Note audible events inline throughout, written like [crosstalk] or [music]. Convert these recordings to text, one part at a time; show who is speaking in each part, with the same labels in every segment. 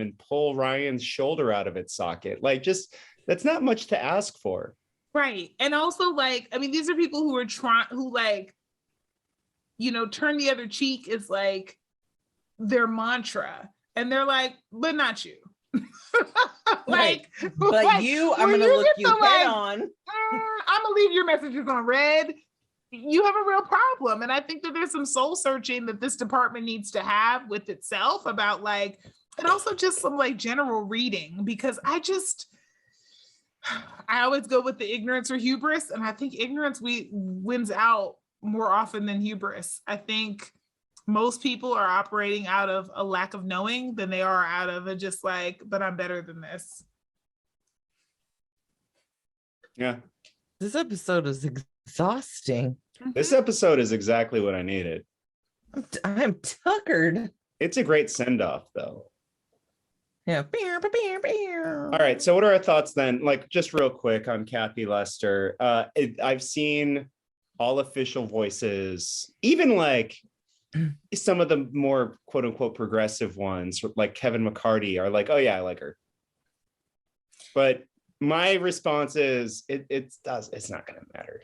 Speaker 1: and pull Ryan's shoulder out of its socket. Like, just that's not much to ask for.
Speaker 2: Right. And also like, I mean, these are people who are trying who like, you know, turn the other cheek is like their mantra. And they're like, but not you. [laughs] like,
Speaker 3: Right. But
Speaker 2: [laughs] like,
Speaker 3: you, I'm
Speaker 2: when
Speaker 3: gonna look
Speaker 2: get
Speaker 3: you
Speaker 2: the,
Speaker 3: head
Speaker 2: like,
Speaker 3: on.
Speaker 2: I'm gonna Uh, leave your messages on red. You have a real problem. And I think that there's some soul searching that this department needs to have with itself about like, and also just some like general reading because I just, I always go with the ignorance or hubris. And I think ignorance we wins out more often than hubris. I think most people are operating out of a lack of knowing than they are out of a just like, but I'm better than this.
Speaker 1: Yeah.
Speaker 3: This episode is exhausting.
Speaker 1: This episode is exactly what I needed.
Speaker 3: I'm, t- I'm tuckered.
Speaker 1: It's a great send off, though.
Speaker 3: Yeah. Beer, beer, beer.
Speaker 1: All right. So, what are our thoughts then? Like, just real quick on Kathy Lester. Uh, it, I've seen all official voices, even like [clears throat] some of the more quote unquote progressive ones, like Kevin McCarty, are like, oh, yeah, I like her. But my response is, it, it does, it's not going to matter.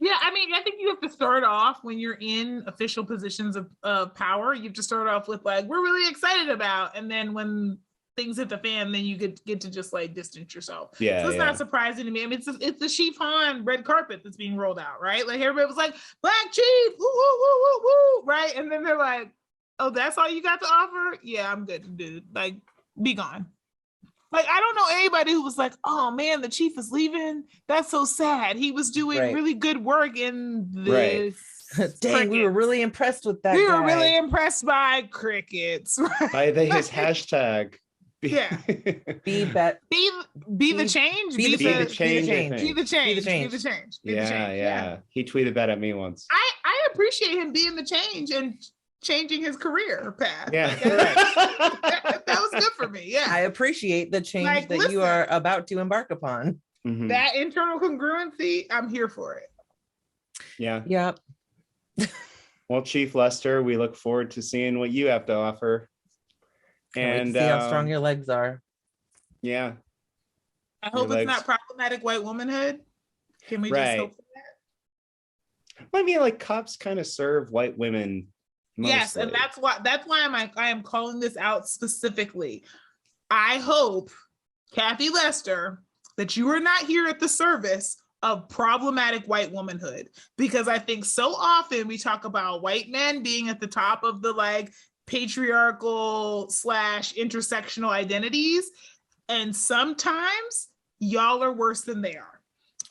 Speaker 2: Yeah, I mean, I think you have to start off when you're in official positions of, of power. You have to start off with like, we're really excited about, and then when things hit the fan, then you get get to just like distance yourself.
Speaker 1: Yeah.
Speaker 2: so it's
Speaker 1: yeah.
Speaker 2: not surprising to me. I mean, it's it's the Chief Han red carpet that's being rolled out, right? Like everybody was like, Black Chief, woo woo woo woo woo, right? And then they're like, Oh, that's all you got to offer? Yeah, I'm good, dude. Like, be gone. Like, I don't know anybody who was like, Oh man, the Chief is leaving. That's so sad. He was doing
Speaker 3: Right.
Speaker 2: really good work in
Speaker 1: Right.
Speaker 2: this.
Speaker 3: [laughs] [laughs] Dang, we were
Speaker 2: crickets.
Speaker 3: really impressed with that.
Speaker 2: we were
Speaker 3: guy.
Speaker 2: really impressed by crickets. [laughs]
Speaker 1: by the, his hashtag.
Speaker 2: Yeah.
Speaker 1: [laughs]
Speaker 3: be bet.
Speaker 2: be be the
Speaker 3: Be-
Speaker 2: change.
Speaker 3: Be, the,
Speaker 1: Be the
Speaker 3: change. Be the
Speaker 1: change, I
Speaker 3: change.
Speaker 1: think.
Speaker 2: Be the change. Be the
Speaker 3: change.
Speaker 2: change. Be the
Speaker 1: yeah,
Speaker 2: change. Ah,
Speaker 1: yeah, He tweeted that at me once.
Speaker 2: I, I appreciate him being the change and changing his career path.
Speaker 1: Yeah.
Speaker 2: Like, that,
Speaker 1: [laughs]
Speaker 2: that was good [laughs] for me. Yeah.
Speaker 3: I appreciate the change
Speaker 2: Like,
Speaker 3: that
Speaker 2: listen.
Speaker 3: you are about to embark upon.
Speaker 1: Mhm.
Speaker 2: that internal congruency, I'm here for it.
Speaker 1: Yeah.
Speaker 3: Yep.
Speaker 1: Well, Chief Lester, we look forward to seeing what you have to offer.
Speaker 3: Can't
Speaker 1: And
Speaker 3: wait to see how strong
Speaker 1: um,
Speaker 3: your legs are.
Speaker 1: yeah,
Speaker 2: I hope
Speaker 1: Your legs.
Speaker 2: it's not problematic white womanhood. Can we
Speaker 1: Right.
Speaker 2: just hope?
Speaker 1: Well, I mean, like cops kind of serve white women. Mostly.
Speaker 2: Yes, and that's why that's why I'm like I am calling this out specifically. I hope Kathy Lester that you are not here at the service of problematic white womanhood because I think so often we talk about white men being at the top of the like patriarchal slash intersectional identities, and sometimes y'all are worse than they are.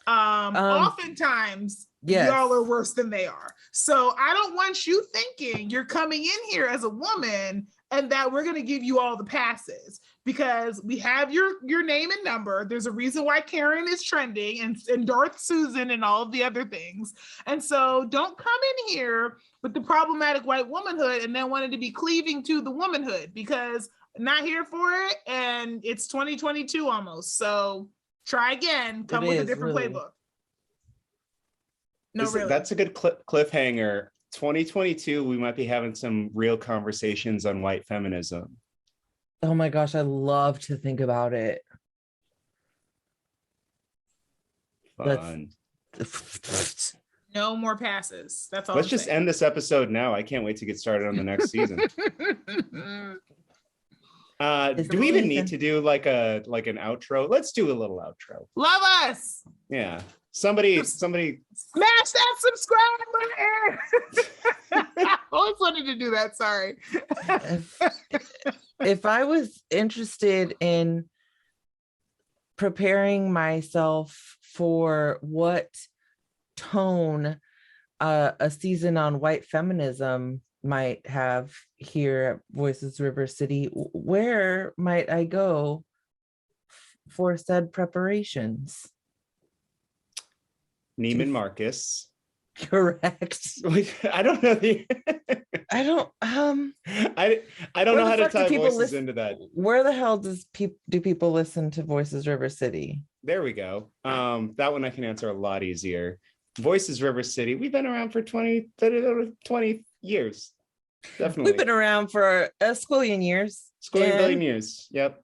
Speaker 2: Um,
Speaker 3: Um,
Speaker 2: oftentimes
Speaker 3: Yes.
Speaker 2: y'all are worse than they are. So I don't want you thinking you're coming in here as a woman and that we're going to give you all the passes because we have your your name and number. There's a reason why Karen is trending and and Darth Susan and all of the other things. And so don't come in here with the problematic white womanhood and then wanted to be cleaving to the womanhood because not here for it and it's 2022 almost. So try again, come
Speaker 3: It
Speaker 2: with a
Speaker 3: is,
Speaker 2: different
Speaker 3: really.
Speaker 2: playbook. No,
Speaker 1: This-
Speaker 2: really.
Speaker 1: that's a good cli- cliffhanger. 2022, we might be having some real conversations on white feminism.
Speaker 3: oh my gosh, I love to think about it. That's-
Speaker 1: Fun.
Speaker 2: No more passes. That's all.
Speaker 1: Let's
Speaker 2: I'm
Speaker 1: just
Speaker 2: saying.
Speaker 1: end this episode now. I can't wait to get started on the next season. Uh,
Speaker 3: Is
Speaker 1: do
Speaker 3: it
Speaker 1: we even
Speaker 3: really
Speaker 1: need
Speaker 3: then?
Speaker 1: to do like a like an outro? Let's do a little outro.
Speaker 2: [laughs] Love us.
Speaker 1: Yeah. Somebody, somebody.
Speaker 2: Smash that [laughs] subscribe button. I always wanted to do that. Sorry.
Speaker 3: if, if I was interested in preparing myself for what tone uh, a season on white feminism might have here at Voices River City, w- where might I go f- for said preparations? [laughs]
Speaker 1: Neiman Marcus. [laughs]
Speaker 3: Correct.
Speaker 1: I don't know the. [laughs]
Speaker 3: I don't um
Speaker 1: I I don't
Speaker 3: Where
Speaker 1: know how
Speaker 3: the
Speaker 1: to
Speaker 3: fuck do
Speaker 1: tie
Speaker 3: people
Speaker 1: voices
Speaker 3: listen-
Speaker 1: into that.
Speaker 3: where the hell does peop do people listen to Voices River City?
Speaker 1: There we go. Um, that one I can answer a lot easier. Voices River City. We've been around for 20, 20 years. Definitely.
Speaker 3: We've been around for a squillion years.
Speaker 1: Squillion
Speaker 3: and-
Speaker 1: billion years. Yep.